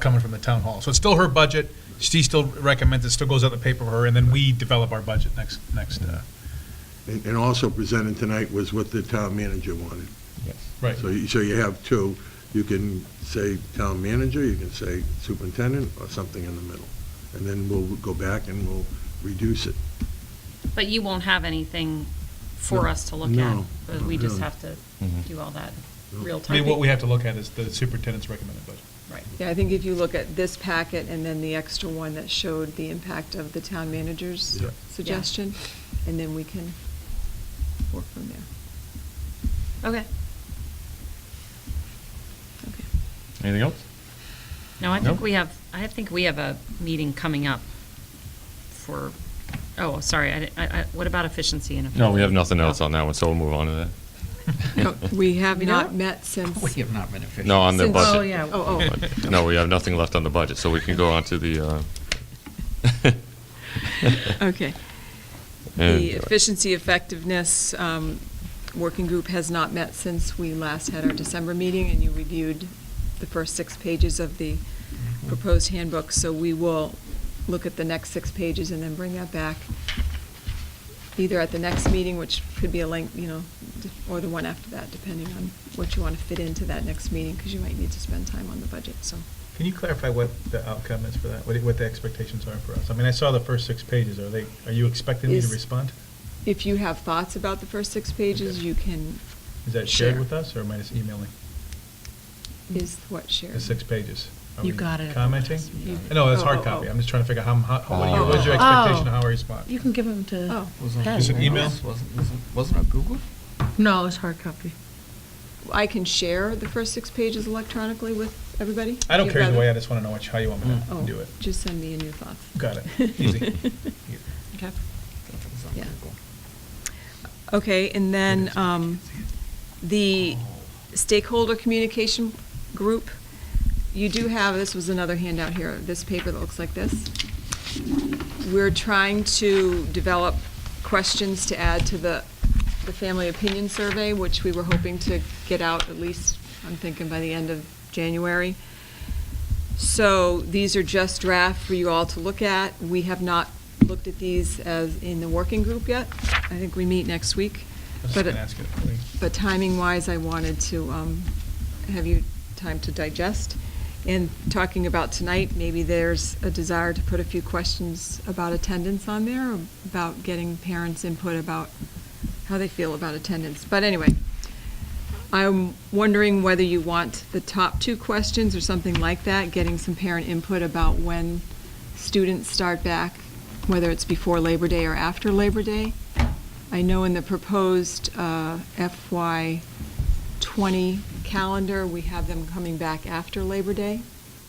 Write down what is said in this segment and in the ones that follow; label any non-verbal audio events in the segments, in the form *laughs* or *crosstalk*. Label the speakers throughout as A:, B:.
A: coming from the town hall. So it's still her budget, she still recommends, it still goes out the paper for her, and then we develop our budget next, next, uh,
B: And and also presented tonight was what the town manager wanted.
A: right.
B: So you, so you have two. You can say town manager, you can say superintendent, or something in the middle. And then we'll go back and we'll reduce it.
C: But you won't have anything for
B: No.
C: us to look at,
B: No.
C: but we just
B: No.
C: have to
D: Mm-hmm.
C: do all that
B: No.
C: real
A: I
C: time.
A: mean, what we have to look at is the superintendent's recommended budget.
C: Right.
E: Yeah, I think if you look at this packet and then the extra one that showed the impact of the town manager's
B: Yeah.
E: suggestion, and then we can work from there.
C: Okay.
E: Okay.
D: Anything else?
C: No, I think
D: No?
C: we have, I think we have a meeting coming up for, oh, sorry, I, di- I, I- what about efficiency and?
D: No, we have nothing else
C: Oh.
D: on that one, so we'll move on to
E: No,
D: that.
E: We have
C: We
E: not
C: don't?
E: met since.
F: *laughs* We have not been
D: *laughs*
F: efficient.
D: No, on the
E: since-
D: budget.
C: Oh, yeah.
E: Oh, oh.
D: *laughs* But, No, we have nothing left on the budget, so we can go on to the, uh...
E: *laughs*
D: *laughs*
E: Okay.
D: and-
E: The efficiency effectiveness um, working group has not met since we last had our December meeting, and you reviewed the first six pages of the proposed handbook, so we will look at the next six pages and then bring that back, either at the next meeting, which could be a length, you know, d- or the one after that, depending on what you want to fit into that next meeting, because you might need to spend time on the budget, so.
A: Can you clarify what the outcome is for that, what, what the expectations are for us? I mean, I saw the first six pages, are they, are you expecting me to
E: Is-
A: respond?
E: If you have thoughts about the first six pages,
A: Okay.
E: you can.
A: Is that shared
E: share.
A: with us, or am I just emailing
E: Is what shared?
A: the six pages? Are
C: You
A: we
C: got it at the
A: Commenting?
C: last meeting.
A: No, that's
E: Oh, oh,
A: hard
E: oh.
A: copy, I'm just trying to figure out how, how, what are your-
D: Oh.
A: what's your
D: Oh.
A: expectation, of how I respond?
G: You can give them to
E: Oh.
F: Wasn't-
G: Pen,
A: Is it
G: right?
A: email?
F: Wasn't, wasn't- wasn't it Google?
G: No, it's hard copy.
E: I can share the first six pages electronically with everybody?
A: I don't
E: You'd
A: care either way, I
E: rather-
A: just wanna know which, how you want me
E: Oh,
A: to do it.
E: Just send me a new thought.
A: Got it.
E: *laughs*
A: Easy.
C: Okay.
F: It was on
E: Yeah.
F: Google.
E: Okay, and then um, the stakeholder communication group, you do have, this was another handout here, this paper that looks like this. We're trying to develop questions to add to the, the family opinion survey, which we were hoping to get out at least, I'm thinking by the end of January. So these are just draft for you all to look at. We have not looked at these as in the working group yet. I think we meet next week.
A: I was just
E: But it-
A: gonna ask it. Like,
E: but timing-wise, I wanted to um, have you time to digest. And talking about tonight, maybe there's a desire to put a few questions about attendance on there, about getting parents' input about how they feel about attendance. But anyway, I'm wondering whether you want the top two questions or something like that, getting some parent input about when students start back, whether it's before Labor Day or after Labor Day. I know in the proposed uh, FY '20 calendar, we have them coming back after Labor Day,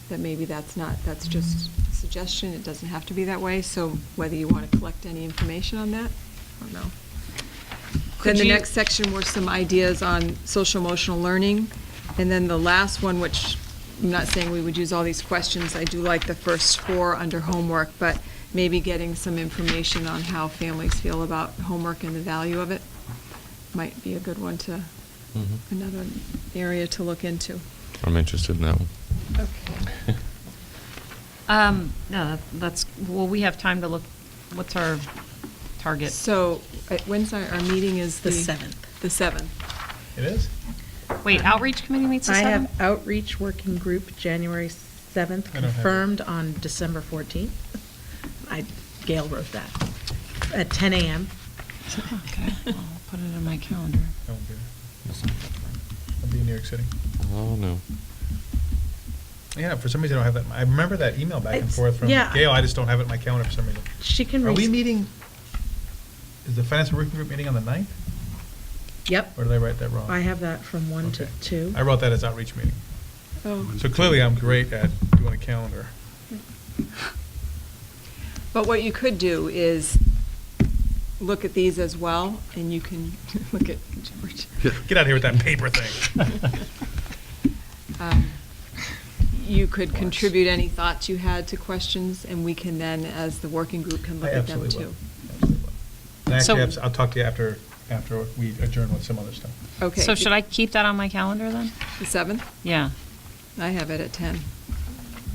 E: that maybe that's not, that's just a suggestion, it doesn't have to be that way, so whether you want to collect any information on that, I don't know. Then
C: Could
E: the
C: you-
E: next section were some ideas on social emotional learning, and then the last one, which, I'm not saying we would use all these questions, I do like the first four under homework, but maybe getting some information on how families feel about homework and the value of it might be a good one to,
D: Mhm.
E: another area to look into.
D: I'm interested in that one. *laughs*
E: Okay.
C: Um, no, that- that's, well, we have time to look, what's our target?
E: So, uh, when's our, our meeting is the?
G: The seventh.
E: The seventh.
A: It is?
C: Wait, outreach committee meets the
G: I
C: seventh?
G: have outreach working group, January 7th,
A: I don't have it.
G: confirmed on December 14th. I, Gail wrote that, at 10 a.m.
C: Okay, I'll put it in my calendar.
A: I won't be there. I'll be in New York City.
D: Oh, no.
A: Yeah, for some reason I don't have that. I remember that email back and
G: It's-
A: forth from
G: yeah.
A: Gail. I just don't have it in my calendar for some reason.
G: She can.
A: Are we
G: res-
A: meeting, is the finance working group meeting on the 9th?
G: Yep,
A: Or did I write that wrong?
G: I have that from 1 to
A: Okay.
G: 2.
A: I wrote that as outreach meeting.
E: Oh,
A: So clearly I'm great at doing a calendar.
E: but what you could do is look at these as well, and you can *laughs* look at George.
A: Get out of here with that paper thing.
E: Um, You could contribute any thoughts you had to questions, and we can then, as the working group, can
A: I
E: look at them
A: absolutely will.
E: too.
A: Absolutely will. And
C: So-
A: actually, abs- I'll talk to you after, after we adjourn with some other stuff.
E: Okay.
C: So should I keep that on my calendar then?
E: The seventh?
C: Yeah.
E: I have it at ten.